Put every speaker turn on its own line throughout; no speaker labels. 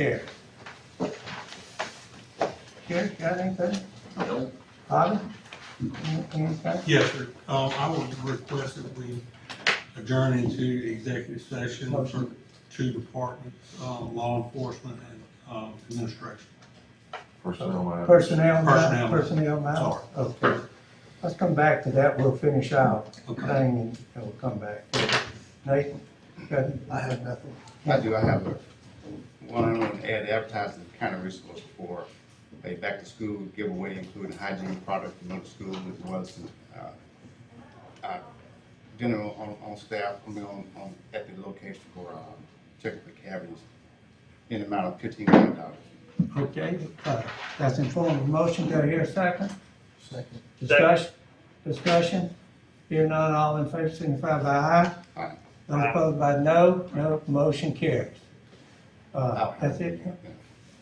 Here. Gary, got anything?
No.
Bobby? Any- Anything?
Yes, sir. Um, I would request that we adjourn into executive session for
Motion.
two departments, um, law enforcement and, um, administration.
Personnel matter.
Personnel, matter-
Personnel.
personnel matter?
Sorry.
Okay. Let's come back to that, we'll finish out thing
Okay.
and and we'll come back. Nathan? I have nothing.
I do, I have a, one, I want to add advertising kind of resource for a back-to-school giveaway, including hygiene products for middle school as well as, uh, uh, general on, on staff, I mean, on, on, at the location for, uh, checking for cavities in the amount of fifteen hundred dollars.
Okay, uh, that's in form of motion, do I hear a second? Second. Discussion, discussion, Hear none, all in favor, signify by aye.
Aye.
Those opposed by no, no, motion carries. Uh, that's it.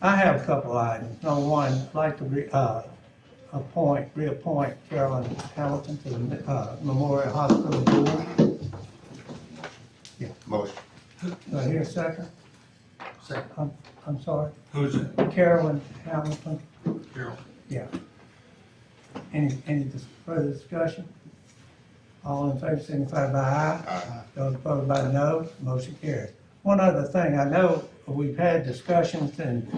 I have a couple items, number one, I'd like to re, uh, appoint, reappoint Carolyn Hamilton to the, uh, Memorial Hospital Board.
Motion.
Do I hear a second? Second. I'm, I'm sorry,
Who's it?
Carolyn Hamilton.
Carol?
Yeah. Any, any dis- further discussion? All in favor, signify by aye.
Aye.
Those opposed by no, motion carries. One other thing, I know we've had discussions and,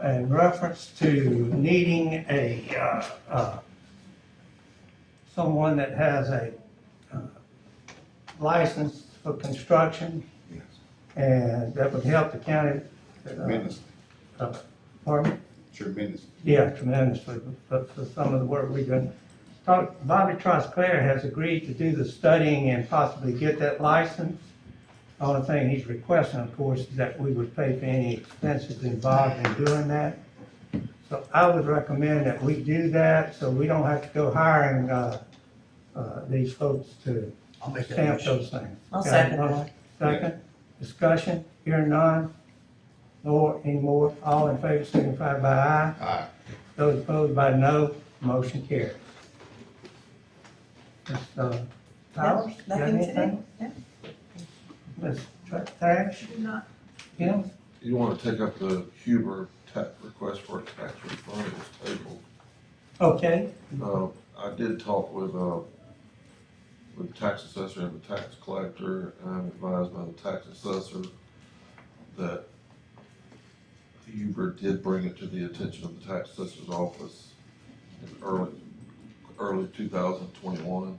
and reference to needing a, uh, uh, someone that has a, uh, license for construction
Yes.
and that would help the county. uh,
Tremendous,
uh, Pardon?
tremendous.
Yeah, tremendously, but for some of the work we've done. Talk- Bobby Trosclair has agreed to do the studying and possibly get that license. The Only thing he's requesting, of course, is that we would pay for any expenses involved in doing that. So I would recommend that we do that, so we don't have to go hiring, uh, uh, these folks to
I'll make that
stamp
motion.
those things.
I'll
Okay,
second
all
that.
right. Second, discussion, hearing none, nor any more, all in favor signify by aye.
Aye.
Those opposed by no, motion carries. Ms. uh, Powers? got
Nothing today?
anything?
Yeah.
Ms. Tra- Trash?
Not
Kim?
You wanna take up the Huber tax request for a tax refund, it was tabled.
Okay,
Uh, I did talk with, uh, with the tax assessor and the tax collector, and I'm advised by the tax assessor that Huber did bring it to the attention of the tax assessor's office in early, early two thousand twenty-one,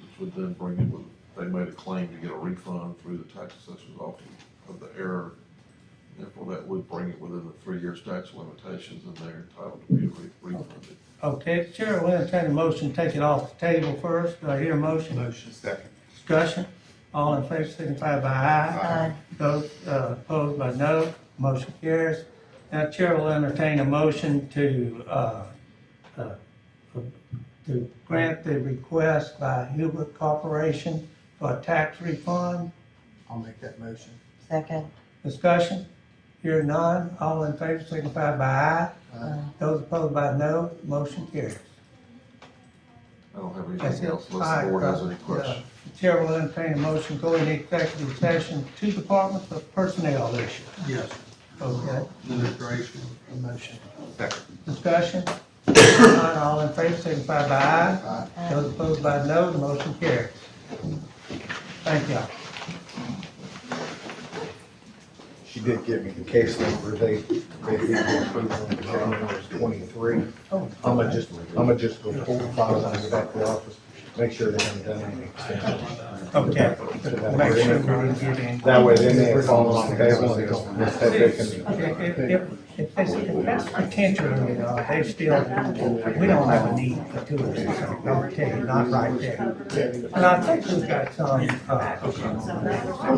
which would then bring it with, they made a claim to get a refund through the tax assessor's office of the error. Therefore, that would bring it within the three-year statute of limitations, and they're entitled to be re- refunded.
okay, Chair will entertain a motion, to take it off the table first, do I hear a motion?
Motion.
Second.
Discussion, all in favor signify by aye.
Aye.
Those uh, opposed by no, motion carries. Now Chair will entertain a motion to, uh, uh, to grant the request by Huber Corporation for a tax refund.
I'll make that motion.
Second.
Discussion? Hear none, all in favor signify by aye.
Aye.
Those opposed by no, motion carries.
I don't have
That's
anything
it.
else unless
Aye.
the board has any
Uh,
questions.
the Chair will entertain a motion, go into executive session, two departments of personnel issues.
Yes.
Okay.
Administration.
A motion.
Second.
Discussion? None, all in favor, signify by aye. Those opposed by no, the motion carries. Thank y'all.
She did give me the case number, they, they gave me approval on the case number twenty-three. I'm gonna just, I'm gonna just go pull the files out of the office, make sure they haven't done any extensions.
Okay. Make sure we don't get in.
That way then they follow on the table and they don't, they can.
If, if, if- if this, if that's potential, you know, they still, we don't have a need for two of these, I'm gonna tell you, not right there. And I think we've got some, uh,